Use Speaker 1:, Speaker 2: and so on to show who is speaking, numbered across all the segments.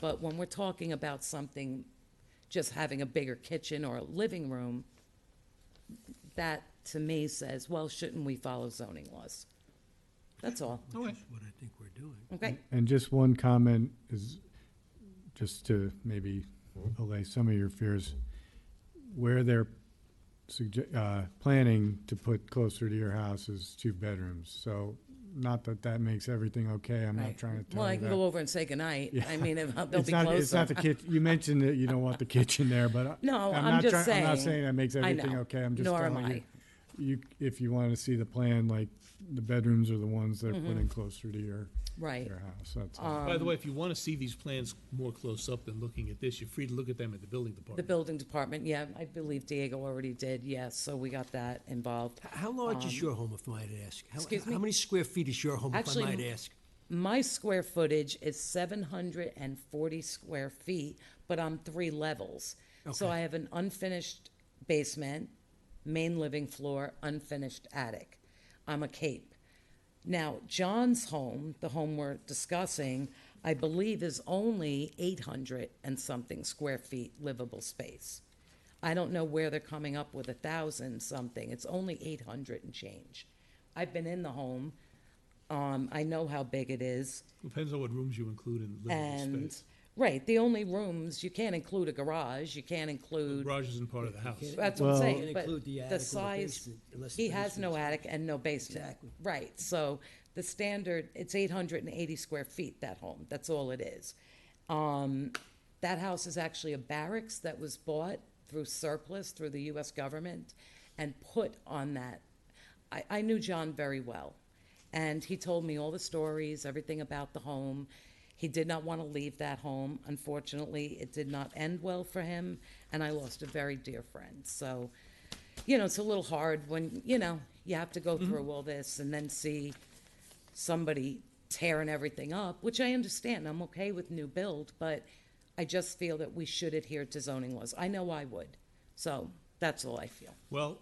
Speaker 1: But when we're talking about something, just having a bigger kitchen or a living room, that to me says, well, shouldn't we follow zoning laws? That's all,
Speaker 2: Okay.
Speaker 3: That's what I think we're doing.
Speaker 1: okay?
Speaker 4: And just one comment is, just to maybe allay some of your fears, where they're sugge- uh, planning to put closer to your house is two bedrooms. So not that that makes everything okay, I'm not
Speaker 1: Right.
Speaker 4: trying to
Speaker 1: Well,
Speaker 4: tell
Speaker 1: I
Speaker 4: you
Speaker 1: can go
Speaker 4: that.
Speaker 1: over and say goodnight. I mean, if- they'll
Speaker 4: It's
Speaker 1: be
Speaker 4: not, it's
Speaker 1: closer.
Speaker 4: not the kitchen, you mentioned that you don't want the kitchen there, but I-
Speaker 1: No, I'm
Speaker 4: not
Speaker 1: just
Speaker 4: trying- I'm not
Speaker 1: saying.
Speaker 4: saying that makes
Speaker 1: I
Speaker 4: everything
Speaker 1: know.
Speaker 4: okay, I'm just
Speaker 1: Nor
Speaker 4: telling
Speaker 1: am
Speaker 4: you.
Speaker 1: I.
Speaker 4: You, if you want to see the plan, like, the bedrooms are the ones that are putting closer to your,
Speaker 1: Mm-hmm. Right.
Speaker 4: your house, that's all.
Speaker 3: By the way, if you want to see these plans more close up than looking at this, you're free to look at them at the building
Speaker 1: The
Speaker 3: department.
Speaker 1: building department, yeah, I believe Diego already did, yes, so we got that involved.
Speaker 2: How large
Speaker 1: Um,
Speaker 2: is your home, if I might ask? How-
Speaker 1: excuse me?
Speaker 2: How many square feet is your home, if I
Speaker 1: Actually,
Speaker 2: might
Speaker 1: m-
Speaker 2: ask?
Speaker 1: My square footage is seven hundred and forty square feet, but I'm three levels. So
Speaker 2: Okay.
Speaker 1: I have an unfinished basement, main living floor, unfinished attic. I'm a cape. Now, John's home, the home we're discussing, I believe is only eight hundred and something square feet livable space. I don't know where they're coming up with a thousand something. It's only eight hundred and change. I've been in the home. Um, I know how big it is
Speaker 3: Depends on what rooms you include in living
Speaker 1: and,
Speaker 3: space.
Speaker 1: right, the only rooms, you can't include a garage, you can't include,
Speaker 3: Garage isn't part of the house.
Speaker 1: that's what I'm
Speaker 4: Well-
Speaker 1: saying,
Speaker 2: Can't
Speaker 1: but
Speaker 2: include the attic
Speaker 1: the
Speaker 2: or the
Speaker 1: size,
Speaker 2: basement, unless the
Speaker 1: he has no
Speaker 2: basement's-
Speaker 1: attic and no basement.
Speaker 2: Exactly.
Speaker 1: Right, so the standard, it's eight hundred and eighty square feet, that home, that's all it is. Um, that house is actually a barracks that was bought through surplus, through the US government, and put on that. I, I knew John very well, and he told me all the stories, everything about the home. He did not want to leave that home. Unfortunately, it did not end well for him, and I lost a very dear friend. So, you know, it's a little hard when, you know, you have to go
Speaker 3: Mm-hmm.
Speaker 1: through all this and then see somebody tearing everything up, which I understand. I'm okay with new build, but I just feel that we should adhere to zoning laws. I know I would. So that's all I feel.
Speaker 3: Well,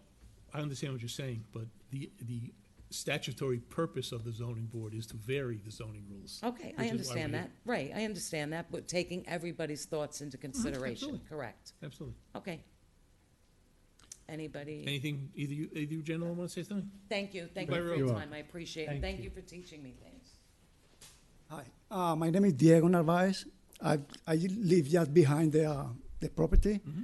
Speaker 3: I understand what you're saying, but the, the statutory purpose of the zoning board is to vary the zoning rules.
Speaker 1: Okay,
Speaker 3: which is
Speaker 1: I
Speaker 3: why
Speaker 1: understand
Speaker 3: we're
Speaker 1: that.
Speaker 3: here.
Speaker 1: Right, I understand that, but taking everybody's thoughts into consideration,
Speaker 3: Oh, absolutely.
Speaker 1: correct?
Speaker 3: Absolutely.
Speaker 1: Okay. Anybody?
Speaker 3: Anything, either you, either you gentlemen want to say something?
Speaker 1: Thank you, thank you
Speaker 3: You're
Speaker 1: for your
Speaker 4: welcome.
Speaker 1: time. I appreciate it.
Speaker 3: Thank
Speaker 1: Thank
Speaker 3: you.
Speaker 1: you for teaching me things.
Speaker 5: Hi, uh, my name is Diego Narvaez. I, I live just behind the, uh, the property.
Speaker 4: Mm-hmm.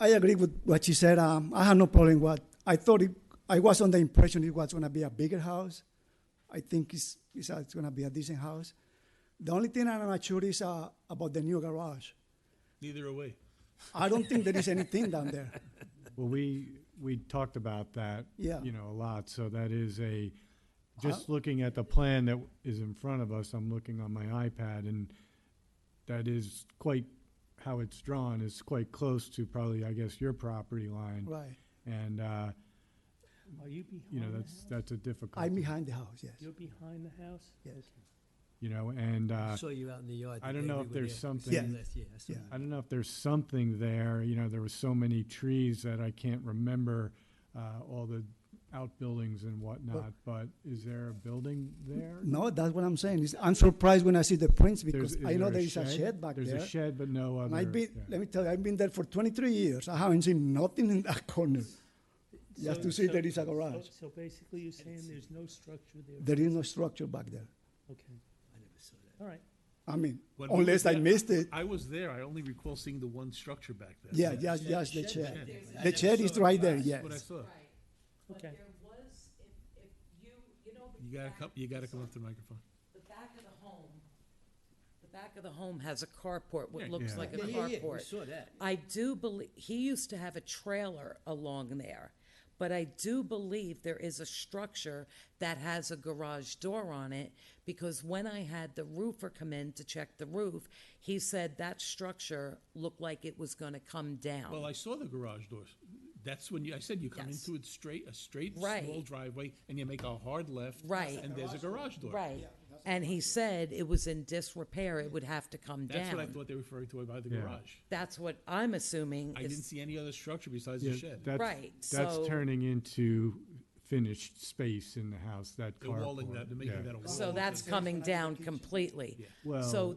Speaker 5: I agree with what she said. Um, I have no problem with. I thought it, I was under the impression it was going to be a bigger house. I think it's, it's, uh, it's going to be a decent house. The only thing I'm not sure is uh, about the new garage.
Speaker 3: Neither are we.
Speaker 5: I don't think there is anything down there.
Speaker 4: Well, we, we talked about that.
Speaker 5: Yeah. Uh-huh.
Speaker 4: You know, a lot, so that is a, just looking at the plan that is in front of us, I'm looking on my iPad, and that is quite, how it's drawn is quite close to probably, I guess, your property line.
Speaker 5: Right.
Speaker 4: And, uh,
Speaker 6: Are you behind
Speaker 4: you know,
Speaker 6: the
Speaker 4: that's,
Speaker 6: house?
Speaker 4: that's a difficult.
Speaker 5: I'm behind the house, yes.
Speaker 6: You're behind the house?
Speaker 5: Yes.
Speaker 6: Okay.
Speaker 4: You know, and,
Speaker 2: I
Speaker 4: uh,
Speaker 2: saw you out in the yard.
Speaker 4: I
Speaker 2: the
Speaker 4: don't
Speaker 2: day
Speaker 4: know
Speaker 2: we
Speaker 4: if
Speaker 2: were
Speaker 4: there's
Speaker 2: there. We saw
Speaker 5: something-
Speaker 2: you last year. I saw
Speaker 5: Yeah.
Speaker 4: I
Speaker 2: that.
Speaker 4: don't know if there's something there, you know, there were so many trees that I can't remember, uh, all the outbuildings and whatnot, but is there a building there?
Speaker 5: No, that's what I'm saying. Is I'm surprised when I see the prints
Speaker 4: There's-
Speaker 5: because
Speaker 4: is
Speaker 5: I know
Speaker 4: there
Speaker 5: there is a shed back there.
Speaker 4: There's a shed, but no other.
Speaker 5: And I've been,
Speaker 4: yeah.
Speaker 5: let me tell you, I've been there for 23 years. I haven't seen nothing in that corner. Just
Speaker 6: So-
Speaker 5: to see
Speaker 6: so-
Speaker 5: there is a
Speaker 6: so-
Speaker 5: garage.
Speaker 6: So basically you're saying there's no structure there?
Speaker 5: There is no structure back there.
Speaker 6: Okay,
Speaker 2: I never saw that.
Speaker 6: all right.
Speaker 5: I mean,
Speaker 3: When we were
Speaker 5: unless I
Speaker 3: there-
Speaker 5: missed it.
Speaker 3: I was there. I only recall seeing the one structure back there.
Speaker 5: Yeah, just, just the
Speaker 6: shed
Speaker 5: chair.
Speaker 3: there,
Speaker 5: The chair is right there,
Speaker 3: That's
Speaker 5: yes.
Speaker 3: what I saw.
Speaker 1: Right,
Speaker 6: but Okay.
Speaker 1: was, if, if you, you know.
Speaker 3: You gotta come, you gotta come up to the microphone.
Speaker 1: The back of the home, the back of the home has a carport, what
Speaker 3: Yeah.
Speaker 1: looks
Speaker 4: Yeah.
Speaker 1: like a
Speaker 2: Yeah, yeah, yeah, we
Speaker 1: carport.
Speaker 2: saw that.
Speaker 1: I do believe, he used to have a trailer along there, but I do believe there is a structure that has a garage door on it, because when I had the roofer come in to check the roof, he said that structure looked like it was gonna come down.
Speaker 3: Well, I saw the garage doors. That's when you, I said you come
Speaker 1: Yes.
Speaker 3: into it straight, a straight,
Speaker 1: Right.
Speaker 3: small driveway, and you make a hard left.
Speaker 1: Right.
Speaker 3: And there's a garage door.
Speaker 1: Right, and he said it was in disrepair, it would have to come down.
Speaker 3: That's what I thought they were referring to by the
Speaker 4: Yeah.
Speaker 3: garage.
Speaker 1: That's what I'm assuming
Speaker 3: I
Speaker 1: is-
Speaker 3: didn't see any other structure besides
Speaker 4: Yeah,
Speaker 3: the shed.
Speaker 4: that's-
Speaker 1: Right, so-
Speaker 4: That's turning into finished space in the house, that
Speaker 3: The
Speaker 4: carport.
Speaker 3: walling that, they're making
Speaker 4: yeah.
Speaker 3: that a wall.
Speaker 1: So that's coming down completely.
Speaker 4: Well-
Speaker 1: So